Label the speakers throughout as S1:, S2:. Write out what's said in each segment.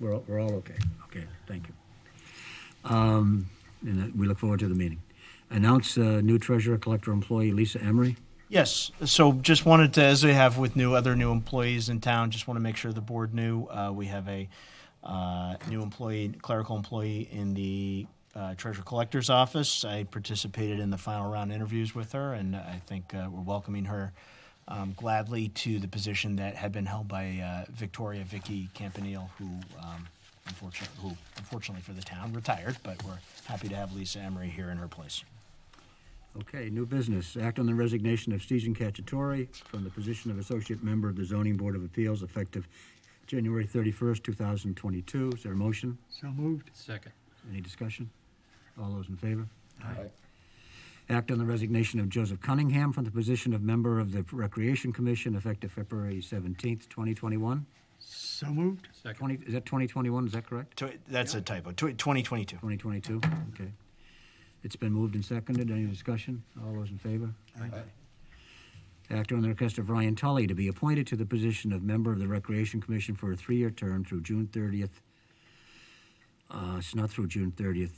S1: we're, all- we're all okay. Okay, thank you. Um, and uh, we look forward to the meeting. Announce uh, new treasurer collector employee Lisa Emery.
S2: Yes, so just wanted to, as we have with new, other new employees in town, just want to make sure the board knew, uh, we have a, uh, new employee, clerical employee in the, uh, treasure collector's office. I participated in the final round interviews with her, and I think, uh, we're welcoming her, um, gladly to the position that had been held by, uh, Victoria Vicky Campanile, who, um, unfortunately, who unfortunately for the town retired, but we're happy to have Lisa Emery here in her place.
S1: Okay, new business. Act on the resignation of Stephen Cacciatore from the position of associate member of the Zoning Board of Appeals effective January 31st, 2022. Is there a motion?
S3: So moved.
S4: Second.
S1: Any discussion? All those in favor? Aye. Act on the resignation of Joseph Cunningham from the position of member of the Recreation Commission effective February 17th, 2021.
S3: So moved.
S4: Second.
S1: 20, is that 2021, is that correct?
S2: Tw- That's a typo, twenty twenty-two.
S1: 2022, okay. It's been moved and seconded, any discussion? All those in favor? Act on the request of Ryan Tully to be appointed to the position of member of the Recreation Commission for a three-year term through June 30th. Uh, It's not through June 30th,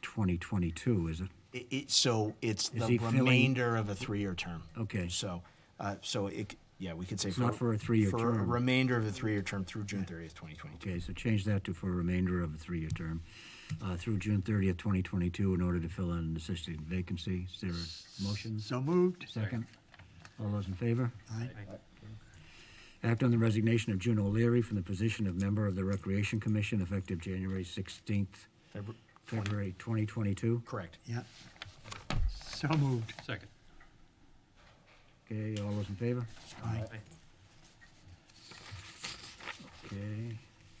S1: 2022, is it?
S2: It, it, so it's
S1: Is
S2: the
S1: he filling-
S2: remainder of a three-year term.
S1: Okay.
S2: So, uh, so it, yeah, we could say.
S1: not for a three-year
S2: For a
S1: term.
S2: remainder of a three-year term through June thirtieth, twenty twenty-two.
S1: Okay, so change that to for a remainder of a three-year term uh, through June 30th, 2022, in order to fill in an assistant vacancy. Is there a motion?
S3: So moved.
S1: Second. All those in favor?
S3: Aye.
S1: Act on the resignation of June O'Leary from the position of member of the Recreation Commission effective January 16th, February 2022.
S2: Correct.
S3: Yep. So moved.
S4: Second.
S1: Okay, all those in favor?
S3: Aye.
S1: Okay.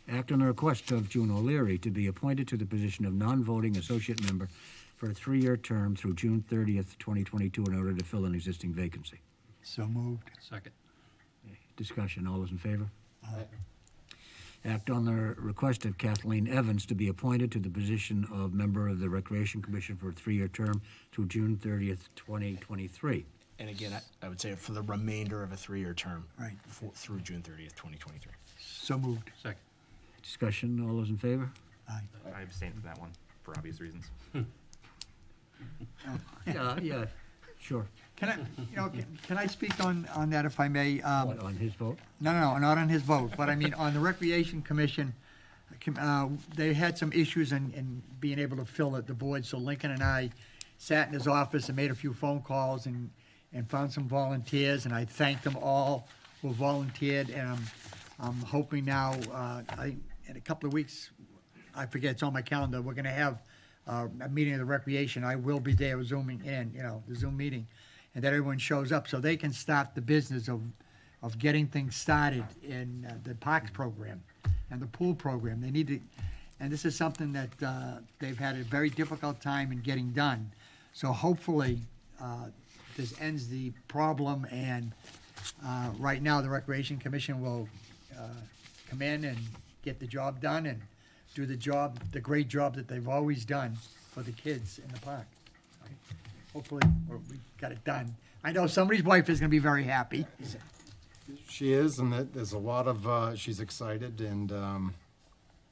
S1: Act on the request of June O'Leary to be appointed to the position of non-voting associate member for a three-year term through June 30th, 2022, in order to fill an existing vacancy.
S3: So moved.
S4: Second.
S1: Discussion, all those in favor?
S3: Aye.
S1: Act on the request of Kathleen Evans to be appointed to the position of member of the Recreation Commission for a three-year term through June 30th, 2023.
S2: And again, I, I would say for the remainder of a three-year term.
S3: Right.
S2: For, through June thirtieth, twenty twenty-three.
S3: So moved.
S4: Second.
S1: Discussion, all those in favor?
S3: Aye.
S5: I abstained from that one for obvious reasons.
S1: Yeah, yeah, sure.
S3: Can I, you know, can- can I speak on, on that if I may? Um,
S1: What, on his vote?
S3: No, no, no, not on his vote, but I mean, on the Recreation Commission, uh, they had some issues in, in being able to fill it, the board, so Lincoln and I sat in his office and made a few phone calls and, and found some volunteers, and I thanked them all who volunteered, and I'm, I'm hoping now, uh, I, in a couple of weeks, I forget, it's on my calendar, we're gonna have uh, a meeting of the recreation, I will be there zooming in, you know, the Zoom meeting, and that everyone shows up, so they can start the business of, of getting things started in uh, the parks program and the pool program. They need to, and this is something that uh, they've had a very difficult time in getting done. So hopefully, uh, this ends the problem, and uh, right now, the Recreation Commission will uh, come in and get the job done and do the job, the great job that they've always done for the kids in the park. Hopefully, we we got it done. I know somebody's wife is gonna be very happy.
S6: She is, and that, there's a lot of, uh, she's excited and, um,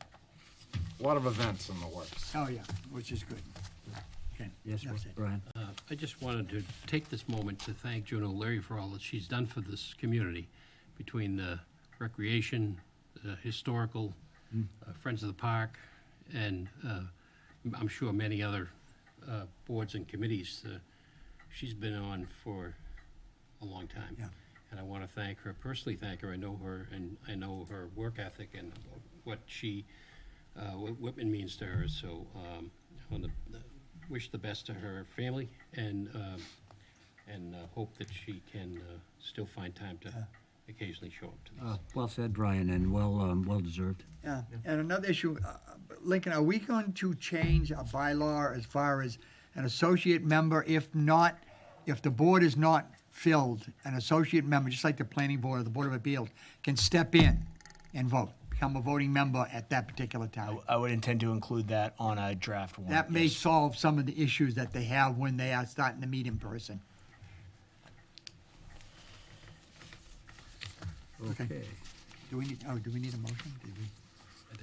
S6: a lot of events in the works.
S3: Oh, yeah, which is good. Okay,
S1: Yes,
S3: that's it.
S1: Brian?
S4: Uh, I just wanted to take this moment to thank Joan O'Leary for all that she's done for this community, between the recreation, the historical, uh, Friends of the Park, and uh, I'm sure many other uh, boards and committees. uh, She's been on for a long time.
S3: Yeah.
S4: And I want to thank her, personally thank her. I know her, and I know her work ethic and what she, uh, what Whitman means to her. So um, I want to wish the best to her family and, um, and uh, hope that she can uh, still find time to occasionally show up to these.
S1: Uh, Well said, Brian, and well, um, well deserved.
S3: Yeah, and another issue, uh, Lincoln, are we going to change a bylaw as far as an associate member? If not, if the board is not filled, an associate member, just like the planning board or the board of appeals, can step in and vote, become a voting member at that particular time.
S2: I would intend to include that on a draft warrant.
S3: That may
S2: yes.
S3: solve some of the issues that they have when they are starting to meet in person. Okay.
S1: Okay.
S3: Do we need, oh, do we need a motion? Did we-